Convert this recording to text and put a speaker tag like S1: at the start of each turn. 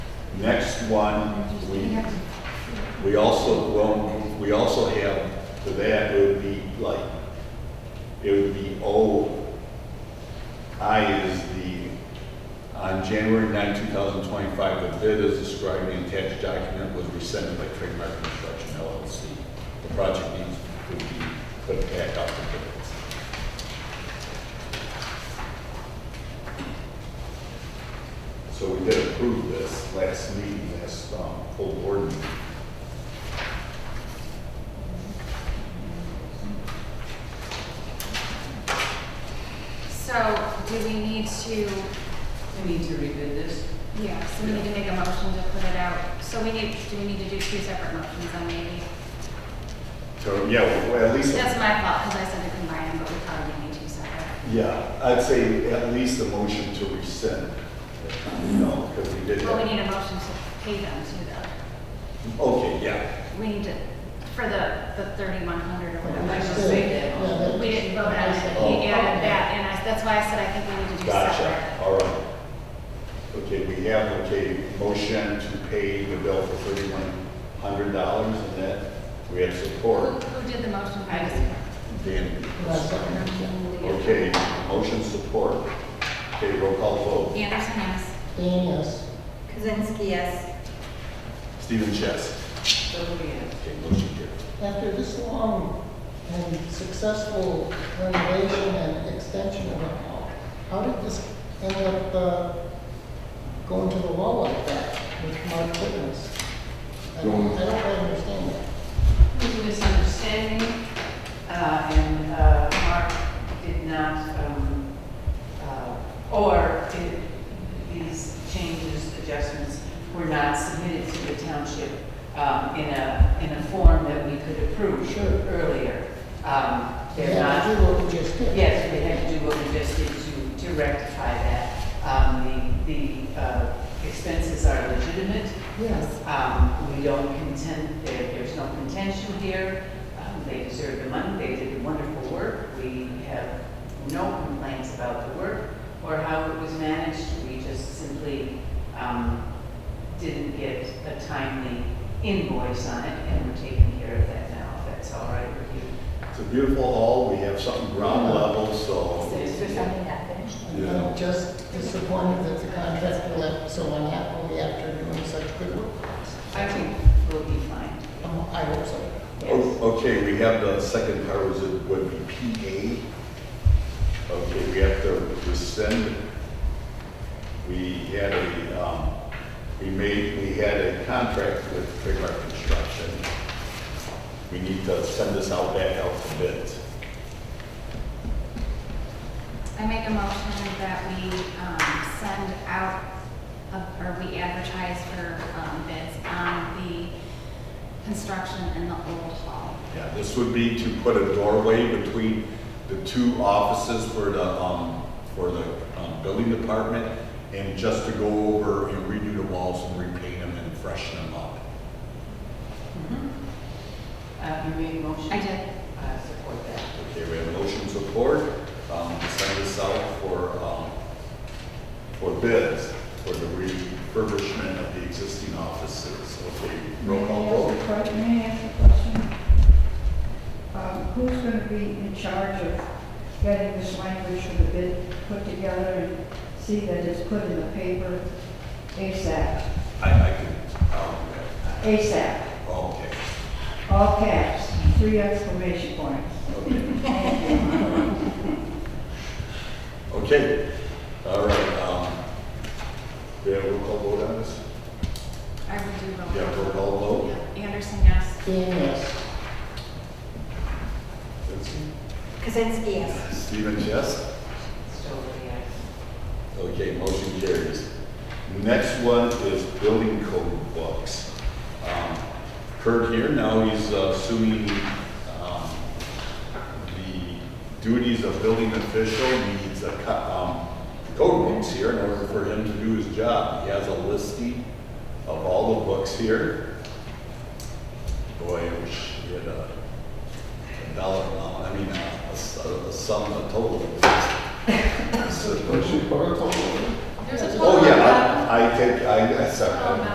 S1: Next one, we, we also, well, we also have, for that, it would be like, it would be O. I is the, on January 9, 2025, the bid as described in the attached document was rescinded by Trademark Construction LLC. The project needs to be put back up for bids. So we did approve this last meeting, last um, full board meeting.
S2: So do we need to,
S3: We need to revisit this.
S2: yeah, so we need to make a motion to put it out. So we need, do we need to do two separate motions then maybe?
S1: So, yeah, well, at least,
S2: That's my fault because I said to combine them, but we probably need two separate.
S1: yeah, I'd say at least a motion to rescind. You know, because we did
S2: Well, we
S1: that.
S2: need a motion to pay them too though.
S1: Okay, yeah.
S2: We need to, for the, the thirty-one hundred or
S3: I
S2: whatever.
S3: just made that
S4: Yeah,
S3: motion.
S4: that-
S2: We didn't vote on it.
S1: Oh.
S2: He added that and I, that's why I said I think we need to do separate.
S1: Gotcha, all right. Okay, we have, okay, motion to pay the bill for thirty-one hundred dollars and that we have
S2: Who
S1: support.
S2: who did the motion?
S3: I did.
S1: Dan.
S4: Last one.
S1: Okay, motion support. Okay, roll call vote.
S2: Anderson, yes.
S4: Dan, yes.
S5: Kazinsky, yes.
S1: Stephen Chess.
S3: So we have.
S1: Okay, motion carries.
S4: After this long and successful renovation and extension of it, how, how did this end up uh, going to the wall like that with Mark Fitness? I don't, I don't quite understand that.
S3: It was a misunderstanding, uh, and uh, Mark did not, um, uh, or did- these changes, adjustments were not submitted to the township um, in a, in a form that we could approve
S4: Sure.
S3: earlier. Um, They're
S4: Yeah,
S3: not
S4: do what we just did.
S3: Yes, we had to do what we just did to, to rectify that. Um, the, the, uh, expenses are legitimate.
S4: Yes.
S3: Um, we don't contend, there, there's no contention here. Um, they deserve the money, they did wonderful work. We have no complaints about the work or how it was managed. We just simply, um, didn't get a timely invoice on it and we're taking care of that now, if that's all right with you.
S1: It's a beautiful hall, we have something ground level, so,
S3: There's
S5: There's something not finished.
S4: I'm
S1: Yeah.
S4: just disappointed that the contractor left so unhappily after doing such good work.
S3: I think we'll be fine.
S4: Um, I hope so.
S3: Yes.
S1: O- Oh, okay, we have the second part, was it, would be PA. Okay, we have to rescind. We had a, um, we made, we had a contract with Trademark Construction. We need to send this out back out to bids.
S2: I make a motion that we um, send out, a- or we advertise for um, bids on the construction in the old hall.
S1: Yeah, this would be to put a doorway between the two offices for the, um, for the, um, building department, and just to go over and redo the walls and repaint them and freshen them up.
S3: Uh, you made a motion?
S2: I did.
S3: I support that.
S1: Okay, we have motion support, um, to send this out for, um, for bids, for the refurbishment of the existing offices. Okay, roll call vote.
S6: May I ask a que- May I ask a question? Um, Who's going to be in charge of getting this language for the bid put together and see that it's put in the paper ASAP?
S1: I, I can, um,
S6: ASAP,
S1: okay.
S6: all caps, three exclamation points.
S1: Okay, all right, um, we have a roll call vote on this?
S2: I would do roll.
S1: Yeah, roll call vote.
S2: Yeah. Anderson, yes.
S4: Dan, yes.
S5: Kazinsky, yes.
S1: Stephen, yes?
S3: Stover, yes.
S1: Okay, motion carries. Next one is building code books. Um, Kurt here, now he's uh, assuming, um, the duties of building official needs a, co- um, code books here in order for him to do his job. He has a listing of all the books here. Boy, I wish we had a a dollar amount, I mean, uh, a, a s- a sum, a total. of this. This is-
S2: There's a total.
S1: Oh, yeah, I I think, I, I
S2: Oh,
S1: second.